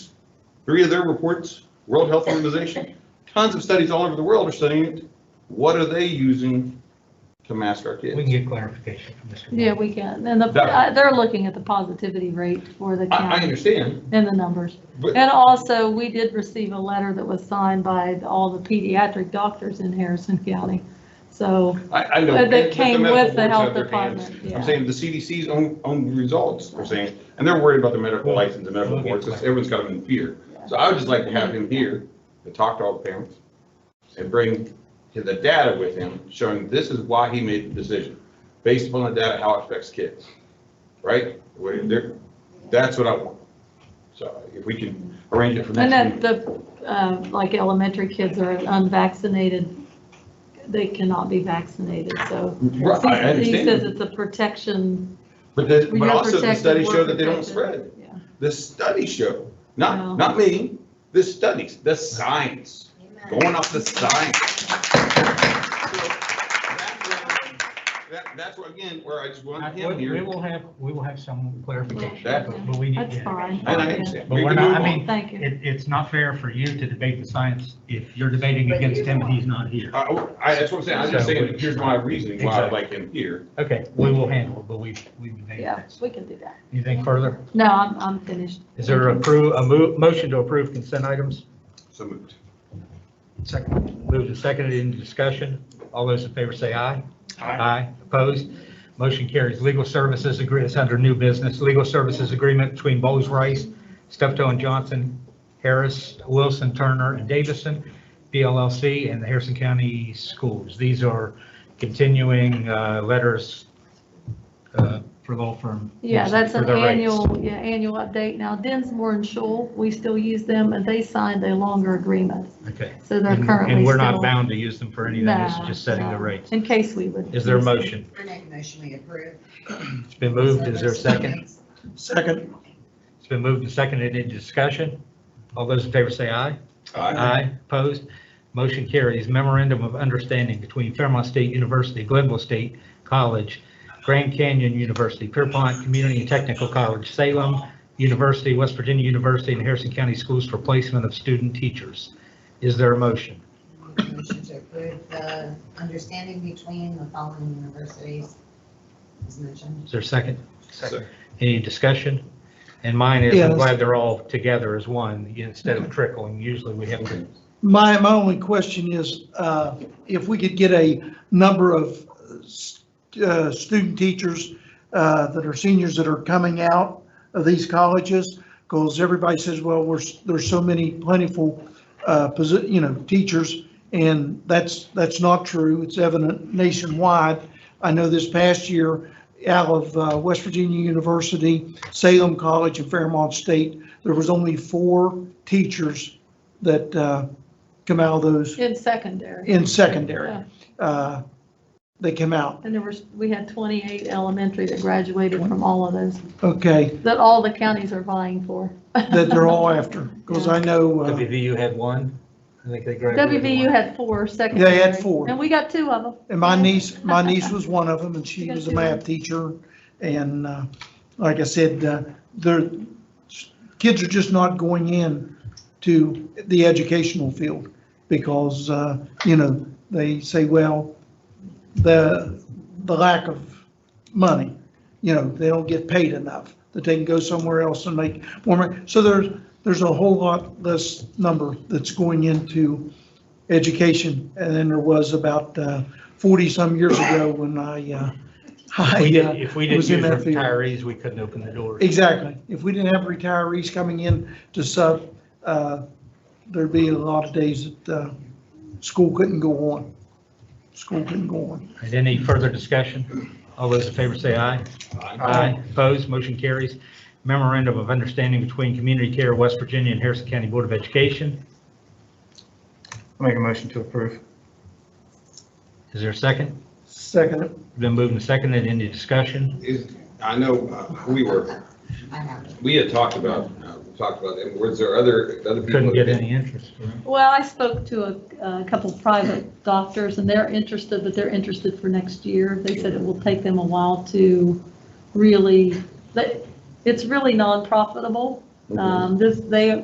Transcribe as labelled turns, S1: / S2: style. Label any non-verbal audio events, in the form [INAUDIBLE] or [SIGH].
S1: Three of their reports, World Health Organization, tons of studies all over the world are studying it. What are they using to mask our
S2: We
S1: kids?
S2: can get clarification from Mr.
S3: Yeah,
S2: Moore.
S3: we can. And the,
S1: That-
S3: uh, they're looking at the positivity rate for the
S1: I, I
S3: county
S1: understand,
S3: and the numbers.
S1: but
S3: And also, we did receive a letter that was signed by all the pediatric doctors in Harrison County. So,
S1: I, I know.
S3: Uh, That
S1: but
S3: came
S1: medical
S3: with the
S1: boards
S3: health
S1: have their hands.
S3: department, yeah.
S1: I'm saying the CDC's own, own results are saying, and they're worried about the medical
S2: Well,
S1: license and medical
S2: we'll get
S1: boards, 'cause
S2: clar-
S1: everyone's got them in fear. So I would just like to have him here to talk to all the parents and bring to the data with him, showing this is why he made the decision, based upon the data, how it affects kids, right? Where they're- That's what I want. So if we can arrange it for
S3: and
S1: next
S3: that
S1: week.
S3: the, uh, like elementary kids are unvaccinated, they cannot be vaccinated, so.
S1: Right, I
S3: He says
S1: understand,
S3: it's a protection.
S1: but the, but
S3: you're
S1: also the
S3: protected,
S1: studies
S3: we're
S1: show that they don't
S3: protected.
S1: spread.
S3: Yeah.
S1: The studies show,
S3: No.
S1: not, not me, the studies, the science, going off the science. That, that's where, again, where I just want
S2: We
S1: him
S2: we
S1: here,
S2: will have, we will have some clarification,
S1: That-
S2: but but we need.
S3: That's
S2: yeah.
S3: fine.
S1: and I understand.
S2: But
S1: We
S2: we're
S1: can
S2: not,
S1: move
S2: I
S1: on.
S2: mean,
S3: Thank you.
S2: it, it's not fair for you to debate the science if you're debating
S4: But
S2: against
S4: you
S2: him and
S4: want-
S2: he's not here.
S1: I, Uh, I, that's what I'm saying, I'm just
S2: So-
S1: saying, here's my reasoning why I'd like him here.
S2: Okay, we will handle it, but we, we debated
S3: Yeah,
S2: this.
S3: we can do that.
S2: Anything further?
S3: No, I'm, I'm finished.
S2: Is there a approve, a mo- motion to approve consent items?
S1: So moved.
S2: Second. Moved and seconded into discussion. All those in favor say aye. Aye. Opposed? Motion carries. Legal services agree, it's under new business. Legal services agreement between Bowles Rice, Steptoe and Johnson, Harris, Wilson, Turner, and Davison, BLLC, and the Harrison County Schools. These are continuing uh, letters uh, for law firm.
S3: Yeah, that's
S2: for
S3: an
S2: their rates.
S3: annual, yeah, annual update. Now Dinsmore and Shoal, we still use them and they signed a longer agreement.
S2: Okay.
S3: So they're
S2: And-
S3: currently
S2: And we're not
S3: still-
S2: bound to use them for anything, this
S3: Nah,
S2: is just setting the
S3: nah.
S2: rates.
S3: In case we would.
S2: Is there a
S3: use them.
S2: motion?
S4: I make a motion we approve.
S2: It's been moved, is there a second?
S5: Second.
S2: It's been moved and seconded into discussion. All those in favor say aye.
S1: Aye.
S2: Aye, opposed. Motion carries. Memorandum of Understanding between Fairmont State University, Glenville State College, Grand Canyon University, Pierpont Community and Technical College, Salem University, West Virginia University, and Harrison County Schools for placement of student teachers. Is there a motion?
S4: Make a Motion to approve the understanding between the following universities as mentioned.
S2: Is there a second?
S1: Second.
S2: Any discussion? And mine is, I'm
S5: Yes.
S2: glad they're all together as one instead of trickling. Usually we have to
S5: My, my only question is, uh, if we could get a number of uh, s- uh, student teachers uh, that are seniors that are coming out of these colleges, because everybody says, well, we're, s- there's so many plentiful, uh, posi- you know, teachers, and that's, that's not true. It's evident nationwide. I know this past year, out of uh, West Virginia University, Salem College, and Fairmont State, there was only four teachers that uh, come out of those
S3: In secondary.
S5: in secondary.
S3: Yeah.
S5: Uh, They come out.
S3: And there were, we had 28 elementary that graduated from all of those,
S5: Okay,
S3: that all the counties are vying for.
S5: that
S3: [LAUGHS]
S5: they're all after, because I know, uh,
S2: WVU had one. I think they graduated.
S3: WVU
S2: one.
S3: had four secondary.
S5: four.
S3: And we got two of them.
S5: and my niece, my niece was one of them, and she was a math teacher. And uh, like I said, uh, their, kids are just not going in to the educational field because, uh, you know, they say, well, the, the lack of money, you know, they don't get paid enough, that they can go somewhere else and make more money. So there's, there's a whole lot less number that's going into education than there was about 40-some years ago when I, uh, I.
S2: We
S5: uh,
S2: did- If we didn't
S5: was in
S2: use
S5: that field.
S2: retirees, we couldn't open the doors.
S5: Exactly. If we didn't have retirees coming in to sub, uh, there'd be a lot of days that uh, school couldn't go on. School couldn't go on.
S2: And any further discussion? All those in favor say aye. Opposed, motion carries. Memorandum of Understanding between Community Care of West Virginia and Harrison County Board of Education.
S6: Make a motion to approve.
S2: Is there a second?
S5: Second,
S2: Been moved and seconded. Any discussion?
S1: Is, I know, uh, we were,
S4: I have it.
S1: we had talked about, uh, talked about them, was there other, other people?
S2: Couldn't
S1: that-
S2: get any interest.
S3: Well, I spoke to a, a couple private doctors and they're interested, but they're interested for next year. They said it will take them a while to really, that, it's really non-profitable.
S1: Mhm.
S3: Um, this, they,